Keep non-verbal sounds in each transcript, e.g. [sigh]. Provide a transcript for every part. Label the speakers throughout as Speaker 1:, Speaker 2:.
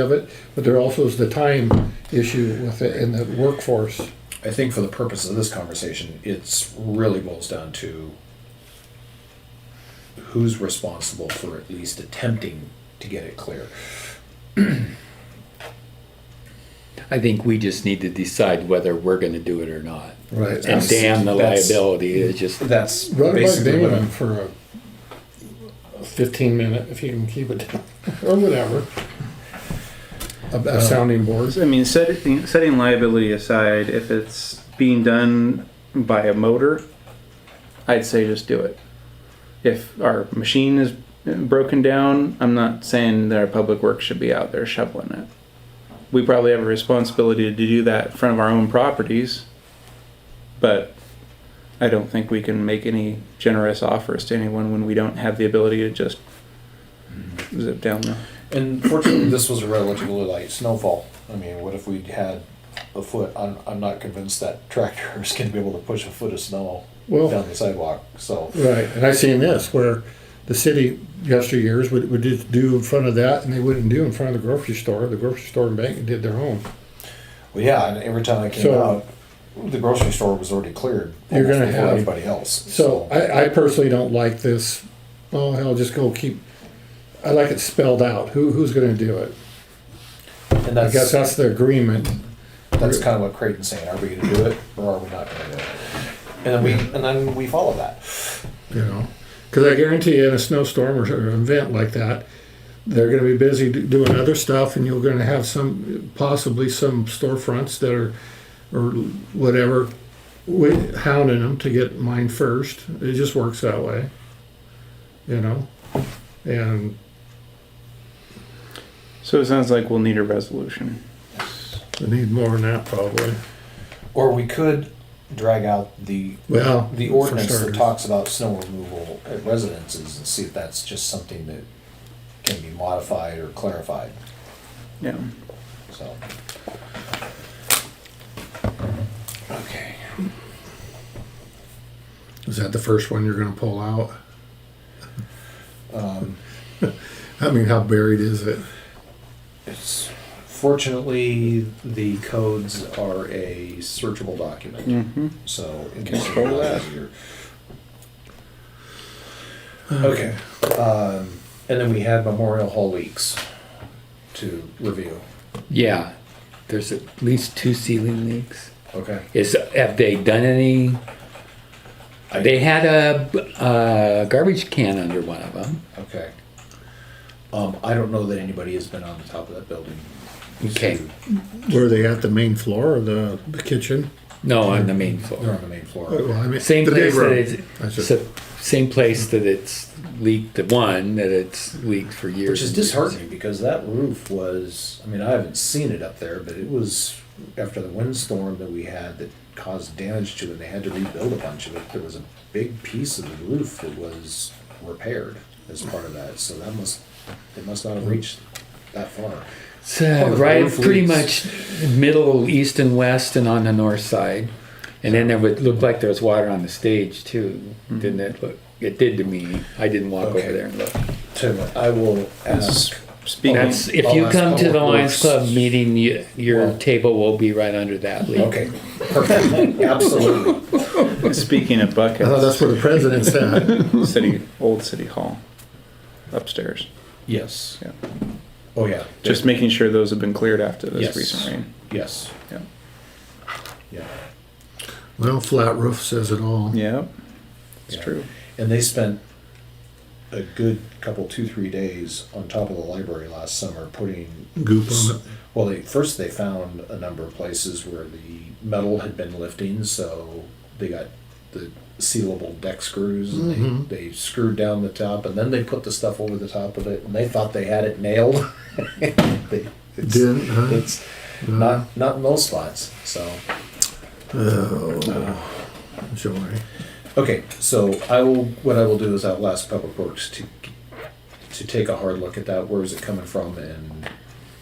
Speaker 1: of it, but there also is the time issue with it and the workforce.
Speaker 2: I think for the purpose of this conversation, it's really boils down to who's responsible for at least attempting to get it clear.
Speaker 3: I think we just need to decide whether we're gonna do it or not.
Speaker 1: Right.
Speaker 3: And damn the
Speaker 2: That's-
Speaker 3: liability,
Speaker 1: mm-hmm.
Speaker 3: it's just,
Speaker 2: That's
Speaker 1: Run it by
Speaker 2: basically what
Speaker 1: Damon
Speaker 2: I'm.
Speaker 1: for a fifteen minute, if you can keep it, down, [laughs] or whatever. A-
Speaker 2: Uh,
Speaker 1: A sounding board.
Speaker 4: I mean, setting, setting liability aside, if it's being done by a motor, I'd say just do it. If our machine is broken down, I'm not saying that our public works should be out there shoveling it. We probably have a responsibility to do that in front of our own properties, but I don't think we can make any generous offers to anyone when we don't have the ability to just zip down the.
Speaker 2: And fortunately, this was a relatively light snowfall. I mean, what if we had a foot? I'm, I'm not convinced that tractor [laughs] is going to be able to push a foot of snow
Speaker 1: Well-
Speaker 2: down the sidewalk. So
Speaker 1: Right, and I seen this where the city yesteryears would, would just do in front of that and they wouldn't do in front of the grocery store. The grocery store and bank did their own.
Speaker 2: Well, yeah, and every time I came
Speaker 1: So-
Speaker 2: out, the grocery store was already cleared.
Speaker 1: You're
Speaker 2: almost
Speaker 1: gonna
Speaker 2: before
Speaker 1: have-
Speaker 2: anybody else.
Speaker 1: So I, I personally don't like this, oh, hell, just go keep, I like it spelled out. Who, who's gonna do it?
Speaker 2: and
Speaker 1: I
Speaker 2: that's
Speaker 1: guess that's the agreement.
Speaker 2: that's kind of what Creighton's saying. Are we going to do it or are we not going to do it? And then we and then we follow that.
Speaker 1: you know because i guarantee you in a snowstorm or, or an event like that they're going to be busy do- doing other stuff and you're going to have some possibly some storefronts that are or whatever wi- hounding them to get mine first it just works that way you know and
Speaker 4: So it sounds like we'll need a resolution.
Speaker 1: we need more than that probably
Speaker 2: Or we could drag out the
Speaker 1: well
Speaker 2: the
Speaker 1: for
Speaker 2: ordinance that
Speaker 1: starters.
Speaker 2: talks about snow removal at residences and see if that's just something that can be modified or clarified.
Speaker 4: Yeah.
Speaker 2: So. Okay.
Speaker 1: is that the first one you're going to pull out
Speaker 2: Um,
Speaker 1: [laughs] i mean how buried is it
Speaker 2: It's fortunately the codes are a searchable document,
Speaker 4: Mm-hmm.
Speaker 2: so in case
Speaker 4: Control
Speaker 2: you're
Speaker 4: F.
Speaker 2: easier. Okay, um, and then we had Memorial Hall leaks to review.
Speaker 3: yeah, there's at least two ceiling leaks.
Speaker 2: Okay.
Speaker 3: Is, have they done any?
Speaker 2: I-
Speaker 3: They had a, a garbage can under one of them.
Speaker 2: Okay. Um, I don't know that anybody has been on the top of that building.
Speaker 3: Okay.
Speaker 1: were they at the main floor or the, the kitchen
Speaker 3: No, on the main
Speaker 2: They're
Speaker 3: floor.
Speaker 2: on the main
Speaker 1: Oh,
Speaker 2: floor.
Speaker 1: well, I mean,
Speaker 3: Same
Speaker 1: the day
Speaker 3: place that
Speaker 1: room.
Speaker 3: it's,
Speaker 1: That's it.
Speaker 3: so- same place that it's leaked, the one that it's leaked for years.
Speaker 2: Which is
Speaker 3: and years.
Speaker 2: disheartening because that roof was, I mean, I haven't seen it up there, but it was after the windstorm that we had that caused damage to it, and they had to rebuild a bunch of it. There was a big piece of the roof that was repaired as part of that, so that must, they must not have reached that far.
Speaker 3: It's uh,
Speaker 2: Oh, the
Speaker 3: right,
Speaker 2: roof
Speaker 3: pretty
Speaker 2: leaks.
Speaker 3: much middle, east, and west, and on the north side. And then there would look like there was water on the stage too, didn't it? Look, it did to me. I didn't walk
Speaker 2: Mm-hmm. Okay.
Speaker 3: over there and look.
Speaker 2: Tim, I will ask,
Speaker 4: Speaking.
Speaker 3: That's if
Speaker 2: I'll
Speaker 3: you
Speaker 2: ask
Speaker 3: come to the
Speaker 2: Public
Speaker 3: Lions
Speaker 2: Works.
Speaker 3: Club meeting, you, your
Speaker 2: Well-
Speaker 3: table will be right under that leak.
Speaker 2: okay, perfect, absolutely.
Speaker 4: [laughs] Speaking of
Speaker 1: I thought that's
Speaker 4: buckets,
Speaker 1: where the president's
Speaker 3: [laughs]
Speaker 1: at.
Speaker 4: city, old city hall upstairs.
Speaker 2: Yes.
Speaker 4: Yeah.
Speaker 2: Oh, yeah.
Speaker 4: Just making sure those have been cleared after this
Speaker 2: Yes.
Speaker 4: recent rain.
Speaker 2: Yes,
Speaker 4: Yeah.
Speaker 2: yeah.
Speaker 1: Well, flat roof says it all.
Speaker 4: Yeah. It's
Speaker 2: Yeah.
Speaker 4: true.
Speaker 2: And they spent a good couple, two, three days on top of the library last summer putting.
Speaker 1: Goop on it.
Speaker 2: Well, they, first they found a number of places where the metal had been lifting, so they got the sealable deck screws and
Speaker 1: Mhm.
Speaker 2: they, they screwed down the top, and then they put the stuff over the top of it, and they thought they had it nailed. [laughs] they, it's,
Speaker 1: Didn't, huh?
Speaker 2: It's not not in those spots. So
Speaker 1: Oh, joy.
Speaker 2: Okay, so I will. What I will do is I'll ask Public Works to to take a hard look at that. Where is it coming from, and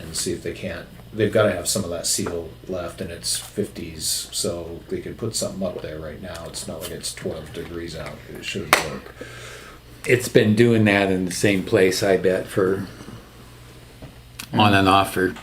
Speaker 2: and see if they can't. They've got to have some of that seal left, and it's fifties, so they could put something up there right now. It's not like it's twelve degrees out. It should work.
Speaker 3: It's been doing that in the same place, I bet, for
Speaker 2: Mm.
Speaker 3: on and off for